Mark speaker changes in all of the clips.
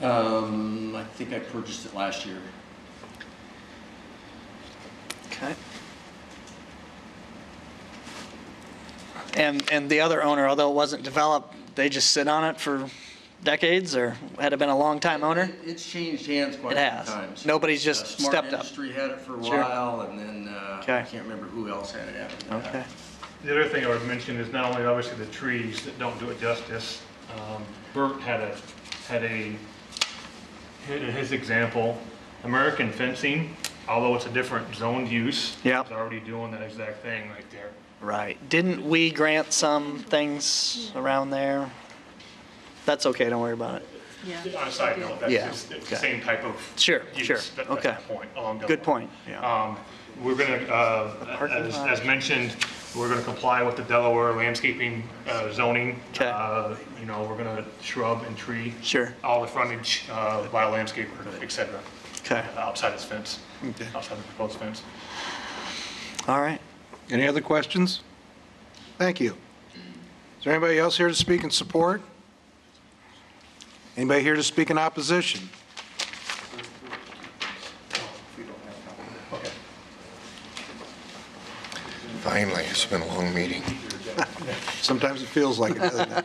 Speaker 1: Um, I think I purchased it last year.
Speaker 2: Okay. And, and the other owner, although it wasn't developed, they just sit on it for decades or had it been a long time owner?
Speaker 1: It- It's changed hands quite
Speaker 2: It
Speaker 1: a few
Speaker 2: has.
Speaker 1: times.
Speaker 2: Nobody's just
Speaker 1: Uh,
Speaker 2: stepped
Speaker 1: Smart
Speaker 2: up.
Speaker 1: Industry had it for a
Speaker 2: Sure.
Speaker 1: while, and then, uh, I
Speaker 2: Okay.
Speaker 1: can't remember who else had it after that.
Speaker 2: Okay.
Speaker 3: The other thing I would mention is not only obviously the trees that don't do it justice, um, Bert had a, had a, in his example, American fencing, although it's a different zoned use.
Speaker 2: Yeah.
Speaker 3: Is already doing that exact thing right there.
Speaker 2: Right. Didn't we grant some things around there? That's okay, don't worry about it.
Speaker 4: Yeah.
Speaker 3: On a side note, that's
Speaker 2: Yeah,
Speaker 3: just, it's
Speaker 2: okay.
Speaker 3: the same type of.
Speaker 2: Sure,
Speaker 3: use.
Speaker 2: sure,
Speaker 3: That-
Speaker 2: okay.
Speaker 3: That's the point. all I'm going
Speaker 2: Good
Speaker 3: with.
Speaker 2: point, yeah.
Speaker 3: Um, We're going to,
Speaker 2: parking
Speaker 3: as
Speaker 2: lot.
Speaker 3: as mentioned, we're going to comply with the Delaware landscaping uh, zoning.
Speaker 2: Okay.
Speaker 3: Uh, You know, we're going to shrub and tree.
Speaker 2: Sure.
Speaker 3: All the frontage uh, by a landscaper, et cetera,
Speaker 2: Okay,
Speaker 3: outside his fence,
Speaker 2: Okay.
Speaker 3: outside the proposed fence.
Speaker 2: all right.
Speaker 5: Any other questions? Thank you. Is there anybody else here to speak in support? Anybody here to speak in opposition?
Speaker 6: Finally, it's been a long meeting.
Speaker 5: Sometimes it feels like it, doesn't it?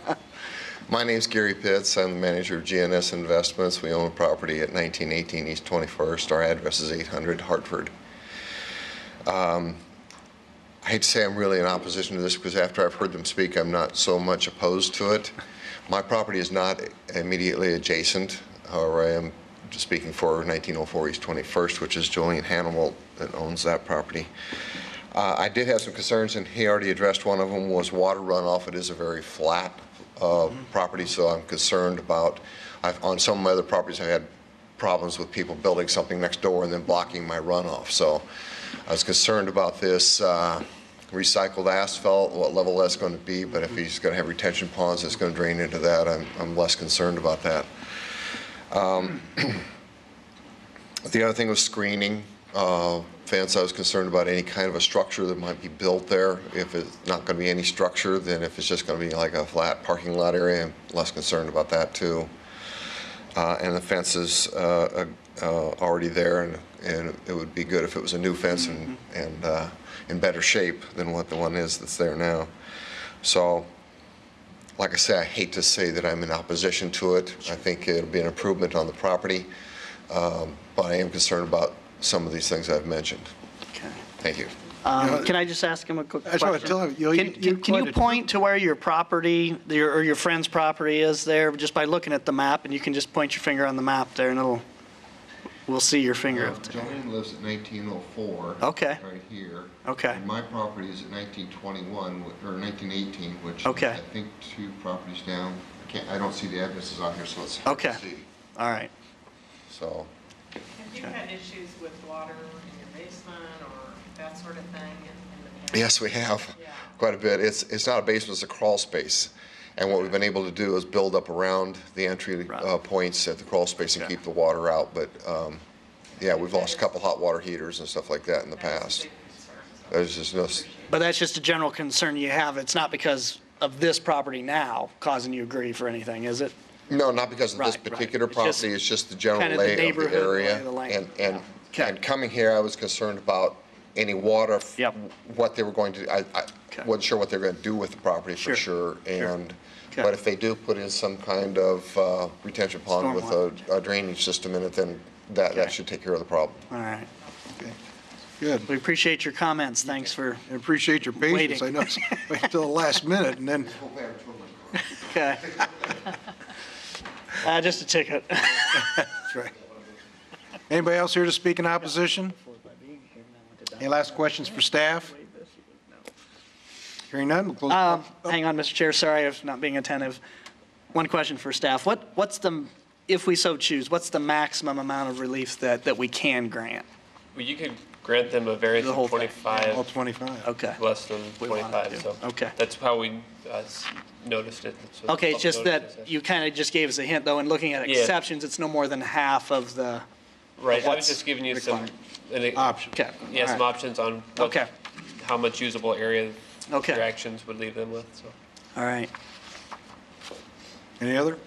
Speaker 6: My name's Gary Pitts. I'm the manager of GNS Investments. We own a property at 1918 East 21st. Our address is 800 Hartford. Um, I hate to say I'm really in opposition to this because after I've heard them speak, I'm not so much opposed to it. My property is not immediately adjacent. However, I am speaking for 1904 East 21st, which is Julian Hannibal that owns that property. Uh, I did have some concerns, and he already addressed one of them, was water runoff. It is a very flat uh, property, so I'm concerned about, I've- on some of my other properties, I had problems with people building something next door and then blocking my runoff. So I was concerned about this uh, recycled asphalt, what level that's going to be, but if he's going to have retention ponds, it's going to drain into that, I'm- I'm less concerned about that. The other thing was screening. Uh, Fence, I was concerned about any kind of a structure that might be built there. If it's not going to be any structure, then if it's just going to be like a flat parking lot area, I'm less concerned about that, too. Uh, And the fence is uh, uh, already there, and- and it would be good if it was a new fence and and uh, in better shape than what the one is that's there now. So like I say, I hate to say that I'm in opposition to it. I think it'll be an improvement on the property, um, but I am concerned about some of these things I've mentioned.
Speaker 2: Okay.
Speaker 6: Thank you.
Speaker 2: Um, Can I just ask him a quick
Speaker 5: I just wanna
Speaker 2: question?
Speaker 5: tell him, you know, you-
Speaker 2: Can-
Speaker 5: you
Speaker 2: Can can you
Speaker 5: pointed-
Speaker 2: point to where your property, your- or your friend's property is there, just by looking at the map? And you can just point your finger on the map there, and it'll, we'll see your finger up there.
Speaker 6: lives at 1904.
Speaker 2: Okay.
Speaker 6: Right here.
Speaker 2: Okay. And
Speaker 6: my property is at 1921, or 1918, which.
Speaker 2: is, Okay. I
Speaker 6: think two properties down. I can't, I don't see the addresses on here, so it's.
Speaker 2: hard to Okay. see. All right.
Speaker 6: So.
Speaker 7: Have you had issues with water in your basement or that sort of thing in- in the past?
Speaker 6: Yes, we have,
Speaker 7: Yeah.
Speaker 6: quite a bit. It's, it's not a basement, it's a crawl space. And what we've been able to do is build up around the entry
Speaker 2: Right.
Speaker 6: uh, points at the crawl space and keep the water out. But, um, yeah, we've lost a couple hot water heaters and stuff like that in the
Speaker 7: That is a
Speaker 6: past.
Speaker 7: big concern, so I
Speaker 6: There's just no, s-
Speaker 7: appreciate it.
Speaker 2: But that's just a general concern you have. It's not because of this property now causing you grief or anything, is it?
Speaker 6: no, not because of
Speaker 2: Right,
Speaker 6: this
Speaker 2: right.
Speaker 6: particular
Speaker 2: It's just
Speaker 6: property, it's just the general
Speaker 2: kinda the
Speaker 6: lay of the
Speaker 2: neighborhood, lay
Speaker 6: area.
Speaker 2: of the land,
Speaker 6: And, and,
Speaker 2: yeah. Okay.
Speaker 6: and coming here, I was concerned about any water, f-
Speaker 2: Yep.
Speaker 6: what they were going to, I, I
Speaker 2: Okay.
Speaker 6: wasn't sure what they were going to do with the property
Speaker 2: Sure,
Speaker 6: for sure. And,
Speaker 2: Okay.
Speaker 6: but if they do put in some kind of uh, retention pond with a- a drainage system in it, then that,
Speaker 2: Okay.
Speaker 6: that should take care of the problem.
Speaker 2: All right.
Speaker 5: Good.
Speaker 2: We appreciate your comments. Thanks for,
Speaker 5: I appreciate your patience. I know it's wait till the last minute, and then,
Speaker 2: okay. Uh, Just a ticket.
Speaker 5: that's right. Anybody else here to speak in opposition? Any last questions for staff? Hearing none, we'll close.
Speaker 2: Um, Hang on, Mr. Chair, sorry if not being attentive. One question for staff. What, what's the, if we so choose, what's the maximum amount of relief that, that we can grant?
Speaker 8: Well, you could grant them a variance
Speaker 2: The
Speaker 8: of
Speaker 2: whole thing,
Speaker 5: All
Speaker 8: 25,
Speaker 5: 25.
Speaker 2: Okay.
Speaker 8: less than
Speaker 2: We want it
Speaker 8: 25,
Speaker 2: to.
Speaker 8: so.
Speaker 2: Okay.
Speaker 8: That's how we uh, s- noticed it. so the
Speaker 2: Okay, it's
Speaker 8: public
Speaker 2: just
Speaker 8: notice
Speaker 2: that
Speaker 8: is-
Speaker 2: you kind of just gave us a hint, though, in looking at
Speaker 8: Yeah.
Speaker 2: exceptions, it's no more than half of the,
Speaker 8: Right, I
Speaker 2: what's
Speaker 8: was just giving you some,
Speaker 2: required.
Speaker 8: an- e-,
Speaker 5: Option.
Speaker 2: okay.
Speaker 8: yeah,
Speaker 2: all
Speaker 8: some
Speaker 2: right.
Speaker 8: options on what-
Speaker 2: Okay.
Speaker 8: how much usable area
Speaker 2: Okay.
Speaker 8: your actions would leave them with, so.
Speaker 2: All right.
Speaker 5: Any other?